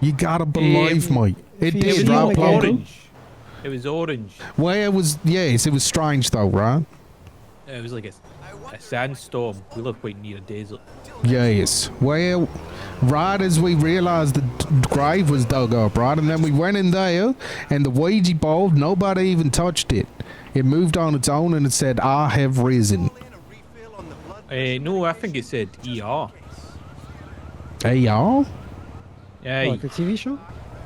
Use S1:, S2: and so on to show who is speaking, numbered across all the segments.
S1: You gotta believe me. It
S2: It
S1: did,
S2: was
S1: right,
S2: not
S1: Plumber?
S2: orange. It was orange.
S1: Well, it was, yes, it was strange though, right?
S2: It was like a, a sandstorm. We looked quite near a desert.
S1: Yes. Well, right as we realized the d- grave was dug up, right? And then we went in there, and the Ouija board, nobody even touched it. It moved on its own and it said, I have risen.
S2: Uh, no, I think it said ER.
S1: Hey, y'all?
S2: Aye.
S3: Like the TV show?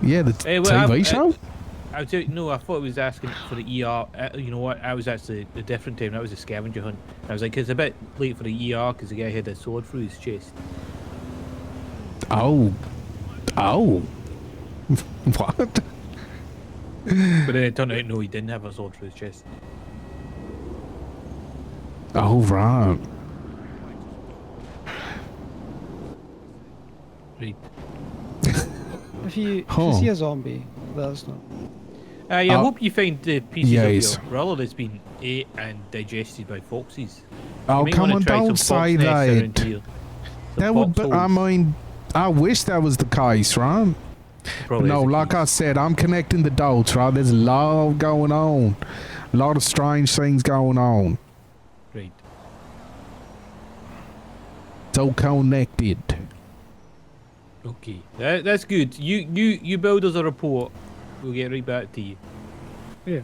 S1: Yeah, the t-
S2: Hey, well,
S1: TV
S2: I-
S1: show?
S2: I was, no, I thought it was asking for the ER. Uh, you know what? I was actually a different time. That was a scavenger hunt. I was like, it's a bit late for the ER because the guy had a sword through his chest.
S1: oh. Oh. what?
S2: But then it turned out, no, he didn't have a sword through his chest.
S1: Oh, right.
S2: Right.
S3: If you, if
S1: Huh.
S3: you see a zombie, let us know.
S2: Aye, I
S1: Uh,
S2: hope you find the pieces
S1: yes.
S2: of your brother that's been ate and digested by foxes. You
S1: Oh,
S2: might
S1: come
S2: wanna
S1: on,
S2: try some
S1: don't
S2: fox
S1: say
S2: nests around
S1: that.
S2: here. Some
S1: That would be, I
S2: foxholes,
S1: mean, I wish that was the case, right?
S2: probably
S1: no,
S2: is the
S1: like
S2: case.
S1: I said, I'm connecting the dots, right? There's a lot going on. A lot of strange things going on.
S2: Right.
S1: It's all connected.
S2: Okay. That, that's good. You, you, you build us a report. We'll get right back to you.
S3: Yeah.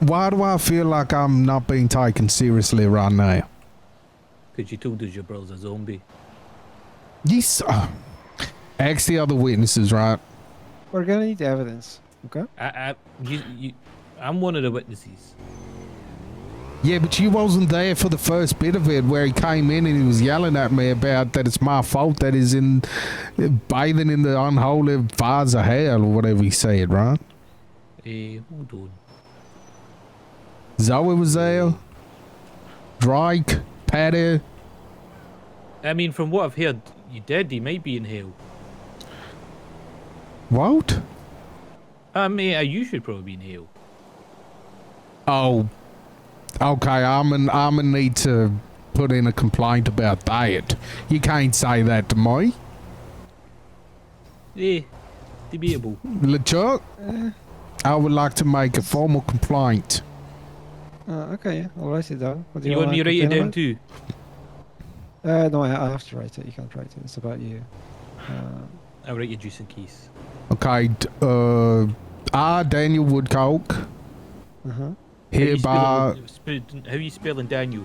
S1: Why do I feel like I'm not being taken seriously right now?
S2: Because you told us your brother's a zombie.
S1: Yes. uh, Ask the other witnesses, right?
S3: We're gonna need evidence. Okay.
S2: I, I, you, you, I'm one of the witnesses.
S1: Yeah, but you wasn't there for the first bit of it where he came in and he was yelling at me about that it's my fault that he's in bathing in the unholy fires of hell or whatever he said, right?
S2: Eh, hold on.
S1: Zoe was there. Drake, Patty.
S2: I mean, from what I've heard, you did. He might be in hell.
S1: What?
S2: I mean, uh, you should probably be in hell.
S1: Oh, okay. I'm an, I'm gonna need to put in a complaint about that. You can't say that to me,
S2: Eh, debatable.
S1: LeChuck. I would like to make a formal complaint.
S3: Uh, okay, yeah. I'll write it down. What do
S2: you,
S3: you,
S2: want me to write it down
S3: complain
S2: too?
S3: about? Uh, no, I, I have to write it. You can't write it. It's about you. Uh,
S2: I'll write you just in case.
S1: Okay. d- Uh, I, Daniel Woodcock,
S3: uh-huh.
S2: How you
S1: hereby
S2: spelling- spelling- How you spelling Daniel?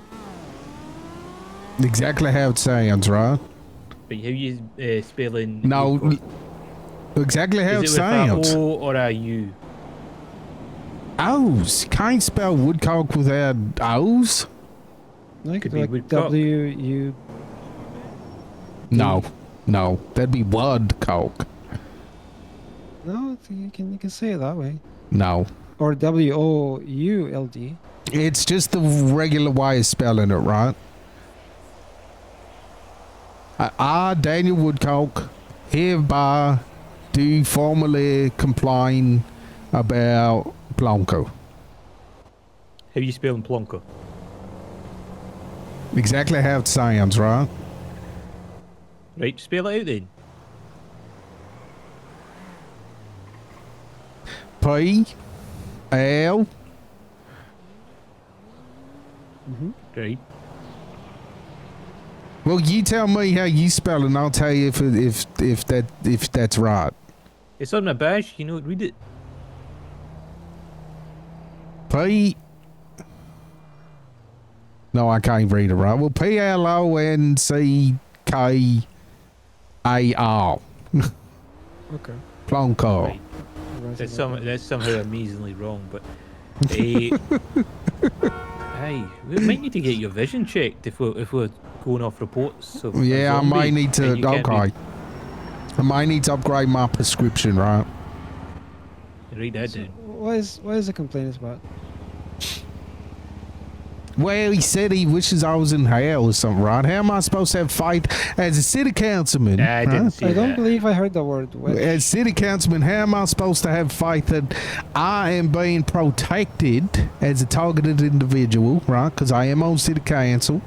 S1: exactly how it sounds, right?
S2: Right, how you uh, spelling?
S1: No,
S2: April?
S1: l- exactly how it
S2: Is it with
S1: sounds.
S2: a O or a U?
S1: O's. Can't spell Woodcock without O's.
S3: No, you
S2: Could
S3: could
S2: be
S3: do like
S2: Woodcock.
S3: W U.
S1: No, no, that'd be Woodcock.
S3: No, it's- you can you can say it that way.
S1: No.
S3: Or W O U L D.
S1: It's just the regular way of spelling it, right? I, I Daniel Woodcock, hereby do formally complain about Blanco.
S2: How you spelling Plonker?
S1: Exactly how it sounds, right?
S2: Right, spell it out then.
S1: P L
S3: Mm-hmm.
S2: Right.
S1: Well, you tell me how you spell it, and I'll tell you if it, if if that if that's right.
S2: It's on a badge. You know, read it.
S1: P. No, I can't read it right. Well, P L O N C K A R.
S3: Okay.
S1: Plonko.
S2: Right.
S3: I'll write it
S2: That's
S3: down.
S2: some. That's somehow amazingly wrong, but. eh, hey, we might need to get your vision checked if we're if we're going off reports. Of a
S1: Yeah, I
S2: zombie
S1: might need to.
S2: and you can't
S1: Okay.
S2: read-
S1: I might need to upgrade my prescription, right?
S2: Read that
S3: So
S2: down.
S3: what is what is the complaint about?
S1: Well, he said he wishes I was in hell or something, right? How am I supposed to have faith as a city councilman?
S2: Nah, I
S1: right?
S2: didn't see
S3: I don't
S2: that.
S3: believe I heard the word witch.
S1: As city councilman, how am I supposed to have faith that I am being protected as a targeted individual, right? Because I am on city council.